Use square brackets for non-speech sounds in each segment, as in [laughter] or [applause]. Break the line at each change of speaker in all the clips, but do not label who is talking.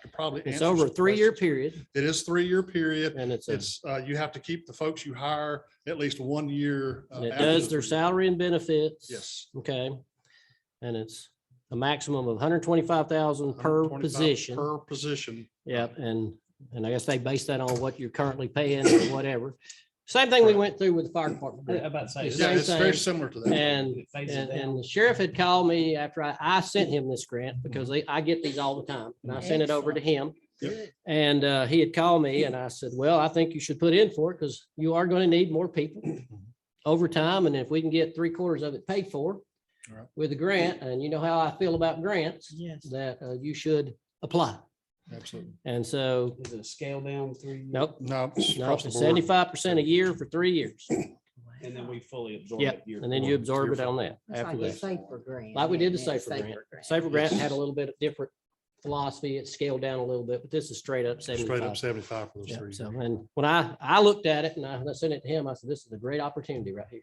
could probably.
It's
answer
over a
some
three-year
questions.
period
It is three-year period.
and it's, a-
It's, uh, you have to keep the folks you hire at least one year. uh,
and it
after
does
the
their
three years.
salary and benefits.
Yes.
Okay. And it's a maximum of hundred twenty-five thousand per
125
position.
Per position.
Yep, and, and I guess they base that on what you're currently paying or whatever. Same thing we
Correct.
went through with the fire department.
I'm about to say.
It's
Yeah,
same
it's very
thing.
similar to that.
And,
It fades
and,
down.
and the sheriff had called me after I, I sent him this grant because they- I get these all the time and I sent it over to him.
Yep.
And, uh, he had called me and I said, well, I think you should put in for it because you are going to need more people
Mm-hmm.
over time. And if we can get three quarters of it paid for
Right.
with a grant, and you know how I feel about grants,
Yes.
that, uh, you should apply.
Absolutely.
And so,
Is it a scale down three?
nope,
No, it's
No,
across the
it's
board.
seventy-five percent a year for three years.
And then we fully absorb it.
Yep,
year
and then
four.
you absorb
year
it on that
That's
after
like a
that.
safer grant.
Like we did the
isn't it?
safer grant. Safer grant had
Yes.
a little bit of different philosophy. It scaled down a little bit, but this is straight up
Straight up
seventy-five.
seventy-five for those
Yep,
three.
So,
years.
and when I, I looked at it and I I sent it to him, I said, this is a great opportunity right here.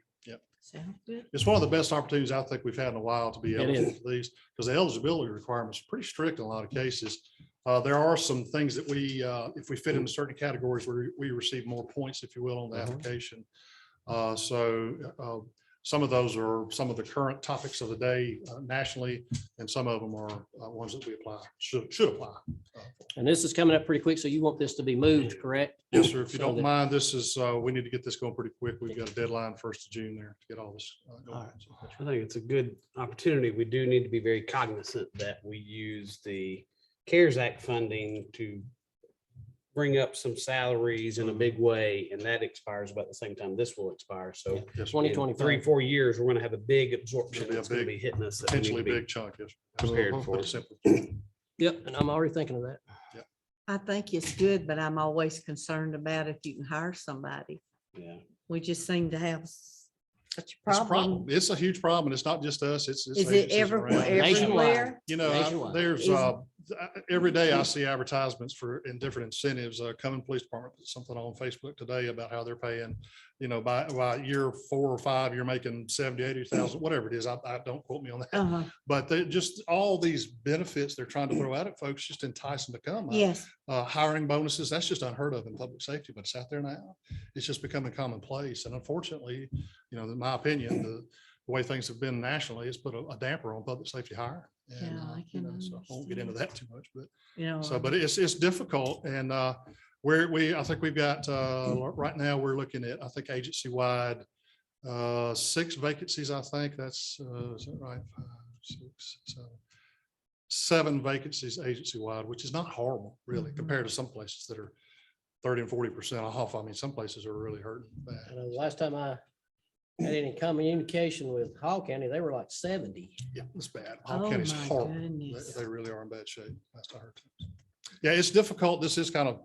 Sounds good.
It's one of the best opportunities I think we've had in a while to be
It
eligible
is.
for these, because the eligibility requirements are pretty strict in a lot of cases. Uh, there are some things that we, uh, if we fit into certain categories, we, we receive more points, if you will, on the
Mhm.
application. Uh, so, uh, some of those are some of the current topics of the day uh, nationally, and some of them are uh, ones that we apply, should, should apply.
And this is coming up pretty quick, so you want this to be moved, correct?
Yes, sir. If you
So
don't
that-
mind, this is, uh, we need to get this going pretty quick. We've got a deadline first of June there to get all this. uh,
All
going.
right. I think it's a good opportunity. We do need to be very cognizant that we use the CARES Act funding to bring up some salaries in a big way, and that expires about the same time this will expire. So in
Yes, sir.
Twenty
Three,
twenty-five.
four years, we're going to have a big absorption
It'll be a
that's going to
big-
be hitting us. that we need to
potentially
be
big chunk, yes.
Prepared
Put
for
it
it.
simply.
Yep, and I'm already thinking of that.
I think it's good, but I'm always concerned about if you can hire somebody.
Yeah.
We just seem to have s-
It's
such a
a problem.
problem.
It's a huge problem. and It's not just us. It's. it's
Is it
agencies
ever-
around.
Nationwide.
everywhere?
You know, I-
nationwide?
there's,
Is-
uh, I- every day I see advertisements for, in different incentives, uh, Cumming Police Department, put something on Facebook today about how they're paying, you know, by, by year four or five, you're making seventy, eighty thousand, whatever it is. I, I, don't quote me on that.
Uh-huh.
But they, just all these benefits they're trying to throw out at folks, just entice them to come. I-
Yes,
uh, hiring bonuses, that's just unheard of in public safety, but it's out there now. It's just becoming commonplace. And unfortunately, you know, in my opinion, the, the way things have been nationally, it's put a a damper on public safety hire. And,
Yeah,
uh,
I
you
can
know, so I won't get into that too much, but
you know.
so, but it's, it's difficult and, uh, where we, I think we've got, uh,
Hmm.
right now, we're looking at, I think, agency-wide, uh, six vacancies, I think, that's, uh, is that right? Five, six, seven. Seven vacancies agency-wide, which is not horrible, really,
Mhm.
compared to some places that are thirty and forty percent off. I mean, some places are really hurting
I
bad.
know uh, the last time I had any communication with Hall County, they were like seventy.
Yeah, it's bad. Hall
Oh,
County's
my
horrible.
goodness.
They, they really are in bad shape. Last I heard. Yeah, it's difficult. This is kind of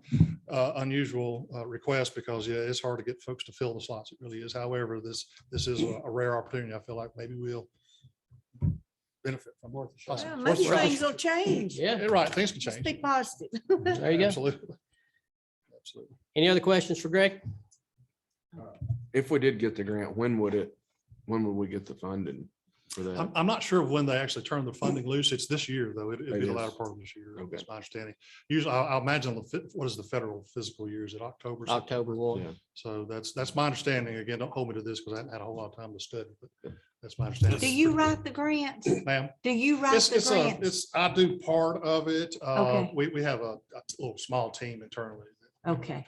uh, unusual uh, request because, yeah, it's hard to get folks to fill the slots. It really is. However, this, this is a a rare opportunity. I feel like maybe we'll benefit from more.
Well, Maybe things will change.
Yeah,
Right, things can
Um, Just
change.
be positive.
there you go.
Absolutely. Absolutely.
Any other questions for Greg?
If we did get the grant, when would it, when would we get the funding for
I'm,
that?
I'm not sure of when they actually turn the funding loose. It's this year, though. It- It'd
It
be the
is.
latter part of this year.
Okay.
That's my understanding. Usually, I I imagine, the fit- what is the federal fiscal year? Is it October? September?
October one.
Yeah.
So that's, that's my understanding. Again, don't hold me to this because I haven't had a whole lot of time to study, but that's my
Do
understanding.
you write the grants?
Ma'am,
Do you write
it's,
the
it's, a-
grants?
it's, I do part of it. Uh,
Okay.
we, we have a, a little small team internally. that-
Okay.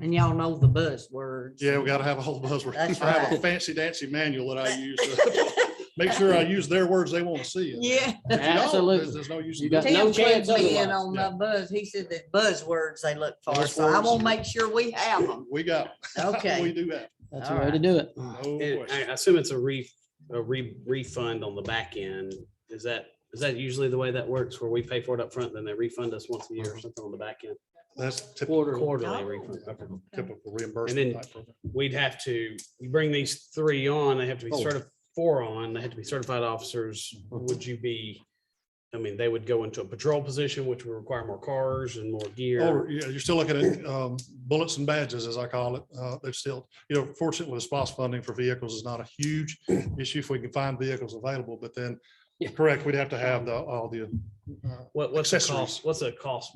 And y'all know the buzzwords.
Yeah, we [laughs] gotta have a whole buzzword. I
That's
have a
right.
fancy dancy manual that I use.
[laughs]
to Make sure I use their words they want to see. in there.
[laughs]
If
Yeah.
you don't, there's-
Absolutely.
There's no use.
You
in
got
doing
no
Tim
chance
clued me in
otherwise,
on
yeah.
my buzz. He said the buzzwords they look for, so I
Buzzwords.
will make sure we have
[laughs]
them.
it. We got. [laughs]
Okay.
We do that.
That's the way to do it.
No
And I
question.
I assume it's a re, a re, refund on the back end. Is that, is that usually the way that works where we pay for it up front, then they refund us once a year
Uh-huh.
or something on the back end?
That's typical,
Quarter.
Quarterly
Oh.
refund. Okay.
typical reimbursement.
then-
type program.
We'd have to, you bring these three on, they have to be
Oh. Uh-huh.
certified, four on, they have to be certified officers. Would you be, I mean, they would go into a patrol position, which would require more cars and more gear.
Or, yeah, you're still looking at um, bullets and badges, as I call it. Uh, They're still, you know, fortunately, the SPOS funding for vehicles is not a huge issue if we can find vehicles available, but then,
Yeah.
correct, we'd have to have the, all the uh,
What, what's the
accessories.
cost? What's the cost